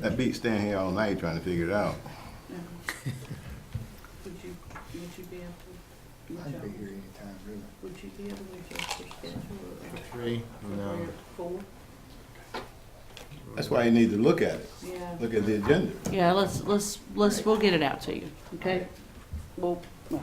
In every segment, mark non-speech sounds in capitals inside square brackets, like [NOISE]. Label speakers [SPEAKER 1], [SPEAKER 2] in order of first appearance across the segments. [SPEAKER 1] That beat staying here all night trying to figure it out.
[SPEAKER 2] Um, Would you, would you be able, would
[SPEAKER 3] I'd be
[SPEAKER 2] you,
[SPEAKER 3] here anytime, really.
[SPEAKER 2] would you be able to adjust your schedule?
[SPEAKER 4] Three?
[SPEAKER 2] for
[SPEAKER 4] No.
[SPEAKER 2] grade Four,
[SPEAKER 1] That's why you need to look at it,
[SPEAKER 2] yeah.
[SPEAKER 1] look at the agenda.
[SPEAKER 2] Yeah, let's, let's, let's, we'll get it out to you, okay? Well, well,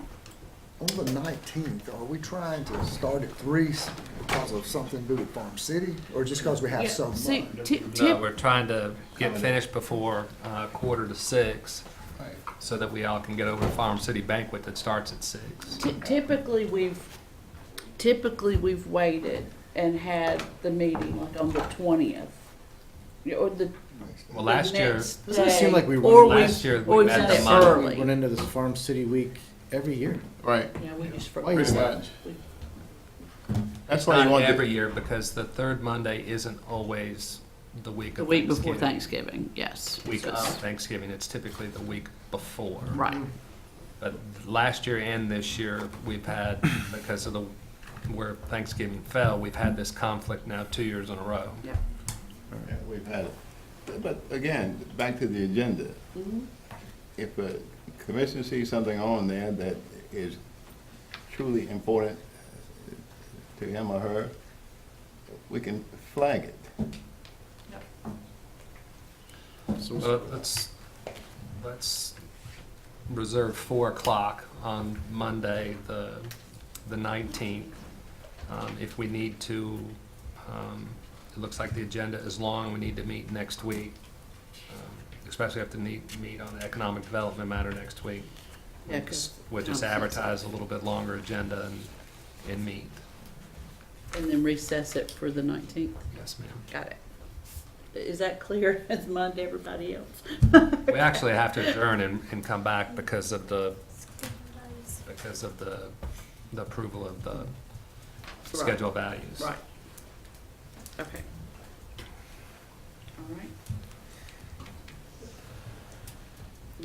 [SPEAKER 3] On the nineteenth, are we trying to start at three s- because of something to do with Farm City, or just because we
[SPEAKER 2] yeah,
[SPEAKER 3] have so
[SPEAKER 2] see,
[SPEAKER 3] much?
[SPEAKER 2] ti-
[SPEAKER 5] No,
[SPEAKER 2] tip,
[SPEAKER 5] we're trying to get finished before uh, quarter to six, so that we all can get over to Farm City banquet that starts at six.
[SPEAKER 2] ti- typically, we've, typically, we've waited and had the meeting like on the twentieth. Or the,
[SPEAKER 5] Well,
[SPEAKER 2] the
[SPEAKER 5] last year,
[SPEAKER 2] next
[SPEAKER 4] Doesn't it seem
[SPEAKER 2] day,
[SPEAKER 4] like we
[SPEAKER 2] or
[SPEAKER 4] run
[SPEAKER 5] last year
[SPEAKER 2] Or
[SPEAKER 5] we
[SPEAKER 2] we've
[SPEAKER 5] had
[SPEAKER 2] done
[SPEAKER 5] the
[SPEAKER 2] it
[SPEAKER 5] month.
[SPEAKER 4] We
[SPEAKER 2] early.
[SPEAKER 4] run into this Farm City Week every year.
[SPEAKER 6] Right,
[SPEAKER 2] Yeah, we just.
[SPEAKER 4] Why is
[SPEAKER 6] that?
[SPEAKER 2] We-
[SPEAKER 6] that's why
[SPEAKER 5] not
[SPEAKER 6] you want
[SPEAKER 5] every
[SPEAKER 6] to,
[SPEAKER 5] year, because the third Monday isn't always the week
[SPEAKER 2] The
[SPEAKER 5] of
[SPEAKER 2] week before Thanksgiving,
[SPEAKER 5] Thanksgiving.
[SPEAKER 2] yes.
[SPEAKER 5] Week
[SPEAKER 2] So-
[SPEAKER 5] of Thanksgiving, it's typically the week before.
[SPEAKER 2] Right,
[SPEAKER 5] But last year and this year, we've had, because of the, where Thanksgiving fell, we've had this conflict now two years in a row.
[SPEAKER 1] Yeah, We've had it. But again, back to the agenda.
[SPEAKER 6] Mm-hmm.
[SPEAKER 1] If a commission sees something on there that is truly important to him or her, we can flag it.
[SPEAKER 5] Well, let's, let's reserve four o'clock on Monday, the, the nineteenth. Um, if we need to, um, it looks like the agenda is long, we need to meet next week. Um, Especially have to meet, meet on the economic development matter next week.
[SPEAKER 2] Yeah, 'cause
[SPEAKER 5] We'll just
[SPEAKER 2] conflicts.
[SPEAKER 5] advertise a little bit longer agenda and, and meet.
[SPEAKER 2] and then recess it for the nineteenth.
[SPEAKER 5] Yes, ma'am.
[SPEAKER 2] Got it. Is that clear [LAUGHS] as mud to everybody else?
[SPEAKER 5] We actually have to adjourn and, and come back because of the, because of the, the approval of the schedule values.
[SPEAKER 2] Right. Okay. All right.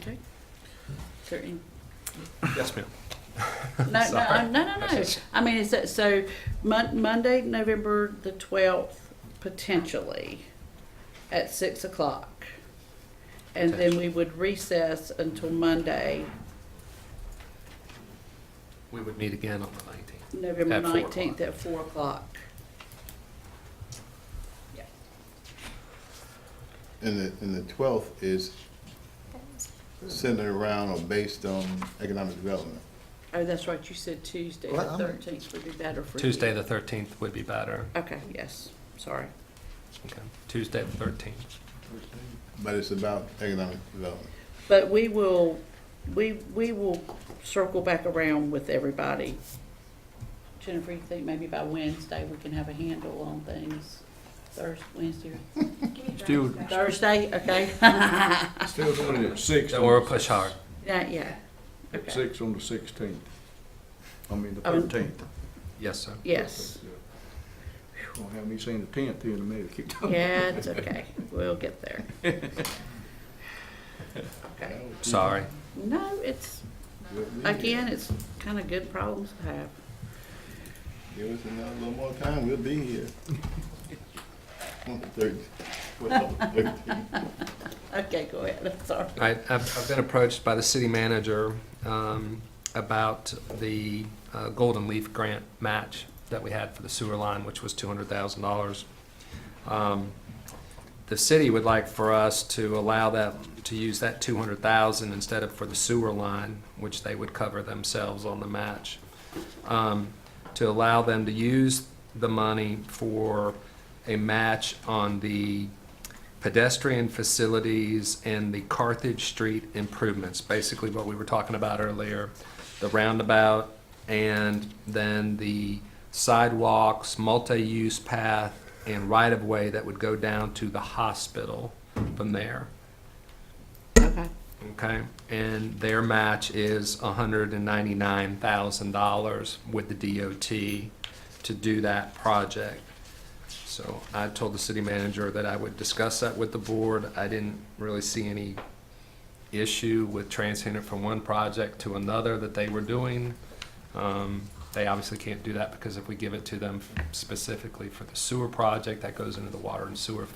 [SPEAKER 2] Okay. Is there any-
[SPEAKER 5] Yes, ma'am.
[SPEAKER 2] No, no,
[SPEAKER 5] Sorry.
[SPEAKER 2] I'm- no, no, no.
[SPEAKER 5] That's just-
[SPEAKER 2] I mean, is that, so Mon- Monday, November the twelfth, potentially, at six o'clock. And then we would recess until Monday,
[SPEAKER 5] We would meet again on the nineteenth.
[SPEAKER 2] November
[SPEAKER 5] At four
[SPEAKER 2] nineteenth at four o'clock. Yeah.
[SPEAKER 1] And the, and the twelfth is centered around or based on economic development.
[SPEAKER 2] Oh, that's right, you said Tuesday, the
[SPEAKER 3] Well, I'm-
[SPEAKER 2] thirteenth would be better for you.
[SPEAKER 5] Tuesday, the thirteenth would be better.
[SPEAKER 2] Okay, yes, sorry.
[SPEAKER 5] Okay. Tuesday, the thirteenth.
[SPEAKER 1] But it's about economic development.
[SPEAKER 2] But we will, we, we will circle back around with everybody. Jennifer, you think maybe by Wednesday we can have a handle on things? Thursday, Wednesday, or
[SPEAKER 5] Do,
[SPEAKER 2] Thursday, okay? Not
[SPEAKER 6] still doing it at six.
[SPEAKER 5] or we'll push hard.
[SPEAKER 2] yet,
[SPEAKER 6] At
[SPEAKER 2] okay,
[SPEAKER 6] six on the sixteenth, I mean, the
[SPEAKER 2] Oh.
[SPEAKER 6] thirteenth.
[SPEAKER 5] Yes, sir.
[SPEAKER 2] yes.
[SPEAKER 6] Gonna have me saying the tenth here in a minute, keep talking.
[SPEAKER 2] Yeah, it's okay, we'll get there.
[SPEAKER 5] [LAUGHS]
[SPEAKER 2] Okay,
[SPEAKER 5] Sorry.
[SPEAKER 2] no, it's, again, it's kind of good problems to have.
[SPEAKER 1] Give us another little more time, we'll be here. [LAUGHS] On the thirteenth, on the thirteenth.
[SPEAKER 2] Okay, go ahead, [LAUGHS] I'm sorry.
[SPEAKER 5] I, I've, I've been approached by the city manager, um, about the, uh, Golden Leaf Grant match that we had for the sewer line, which was two hundred thousand dollars. Um, the city would like for us to allow that, to use that two hundred thousand instead of for the sewer line, which they would cover themselves on the match. Um, to allow them to use the money for a match on the pedestrian facilities and the Carthage Street improvements, basically what we were talking about earlier, the roundabout, and then the sidewalks, multi-use path, and right-of-way that would go down to the hospital from there,
[SPEAKER 2] Okay.
[SPEAKER 5] okay? And their match is hundred and ninety-nine thousand dollars with the DOT to do that project. So I told the city manager that I would discuss that with the board. I didn't really see any issue with transferring it from one project to another that they were doing. Um, They obviously can't do that because if we give it to them specifically for the sewer project, that goes into the water and sewer